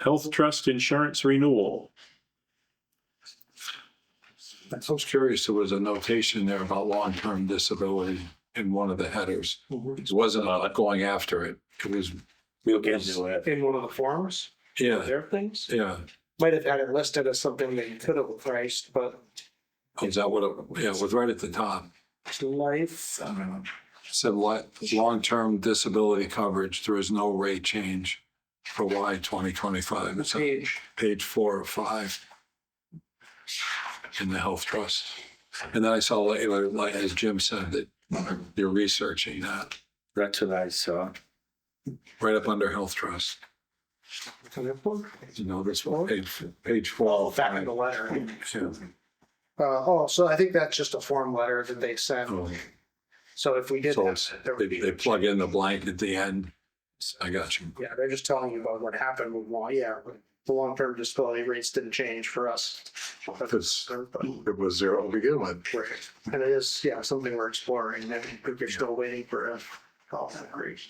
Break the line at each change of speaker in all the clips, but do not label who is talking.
Health Trust Insurance Renewal.
I was curious, there was a notation there about long-term disability in one of the headers. It wasn't about going after it. It was,
We'll get to it.
in one of the forms,
yeah,
their things.
yeah.
Might have had it listed as something they could have priced, but
Is that what, it yeah, it was right at the top.
life,
It Said li long-term disability coverage, there is no rate change for Y twenty twenty-five. It's on
page,
page four or five in the health trust. And then I saw, later, like, as Jim said, that you're researching that
That's what I saw.
right up under health trust.
kind of book.
You know, this one, page, page
Well,
Oh,
four.
back in the letter.
Yeah.
Uh, oh, so I think that's just a form letter that they sent.
Oh,
So if we did
So
that, there
They,
would be.
they plug in the blank at the end. I got you.
Yeah, they're just telling you about what happened with law. Yeah, the long-term disability rates didn't change for us.
Because
But-
it was zero to begin with.
Right. And it is, yeah, something we're exploring, and if you're still waiting for a call from Greece.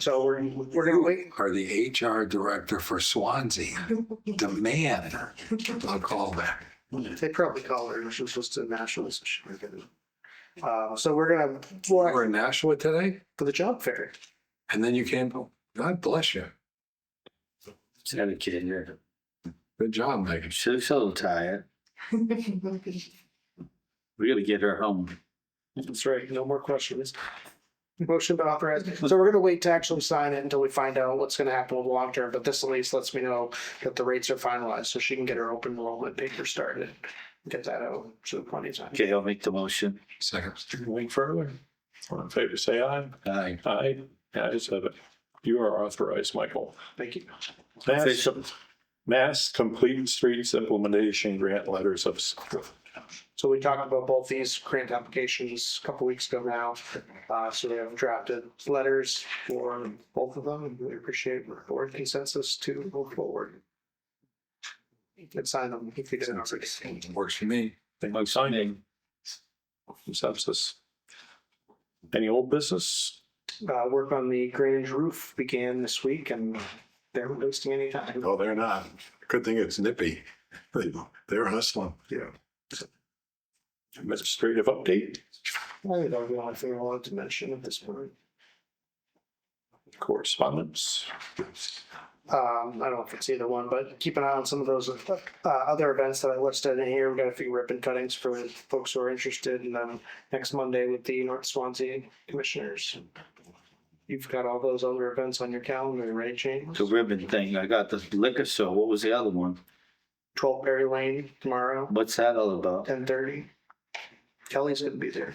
So we're, we're gonna wait,
Are the HR director for Swansea demand a callback?
they probably call her, she was supposed to nationals. she should get it. Uh, so we're gonna,
You
well,
were in Nashua today
for the job fair,
and then you came, home. God bless you.
Had a kid here.
Good job, Megan.
She's so tired. We gotta get her home.
that's right, no more questions. Motion to authorize, so we're gonna wait to actually sign it until we find out what's gonna happen with the long term, but this at least lets me know that the rates are finalized, so she can get her open enrollment paper started. Get that out, so plenty of time.
Okay, I'll make the motion.
Second.
Anything further? All in favor, say aye.
Aye.
Aye. Ayes have it. You are authorized, Michael.
Thank you.
Mass,
Official.
Mass Complete Streets Implementation Grant Letters of Support.
So we talked about both these grant applications a couple weeks ago now. Uh, so we have drafted letters for both of them. and We appreciate board consensus to move forward. You can sign them if you didn't already.
Works for me.
They might sign it. Consensus. Any old business?
Uh, work on the Grange roof began this week and they're wasting any time.
Oh.
No, they're not. Good thing it's nippy. They- They're hustling. Yeah.
Administrative update?
I don't know if they wanted to mention at this point.
Correspondence?
Um, I don't know if it's either one, but keep an eye on some of those uh, other events that I listed in here. We've got a few ribbon cuttings for folks who are interested, and then next Monday with the North Swansea Commissioners. You've got all those other events on your calendar, right, James?
The ribbon thing. I got the liquor store. What was the other one?
Twelve Berry Lane tomorrow,
What's that all about?
ten thirty. Kelly's gonna be there.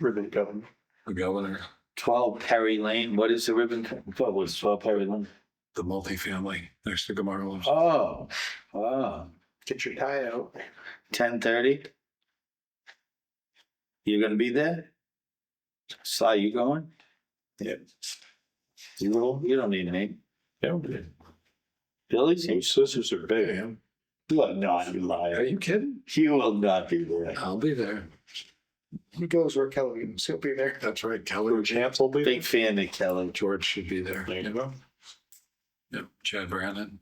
Ribbon cutting.
The governor,
Twelve Perry Lane. What is the ribbon? co- What was twelve Perry Lane?
the multifamily next to Gamarlos.
Oh, oh.
Get your tie out.
Ten thirty? You're gonna be there? Sly, you going?
Yep.
You will? You don't need me.
Yeah,
Billy's?
those scissors are big.
You will not be
Are
lying.
you kidding?
You will not be there.
I'll be there.
He goes where Kelly is. He'll be there.
That's right.
Blue
Kelly,
Chance will be.
Big fan of Kelly.
George should be there.
There you go.
Yep. Chad Brandon.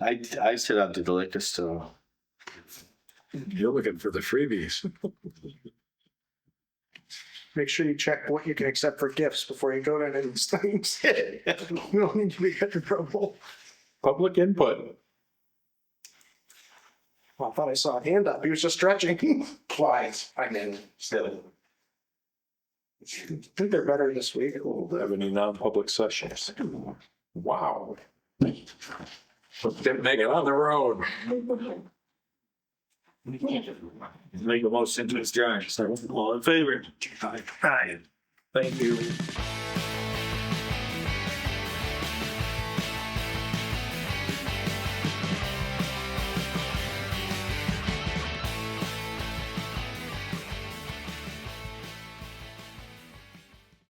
I, I sit up to the liquor store.
You're looking for the freebies.
Make sure you check what you can accept for gifts before you go to any of these things. We don't need to be in trouble.
Public input.
Well, I thought I saw a hand up. He was just stretching. Quiet. I mean, still. I think they're better this week a little bit.
Have any non-public sessions? Wow.
Didn't make it on the road.
Make a motion to adjourn. All in favor? Aye. Thank you.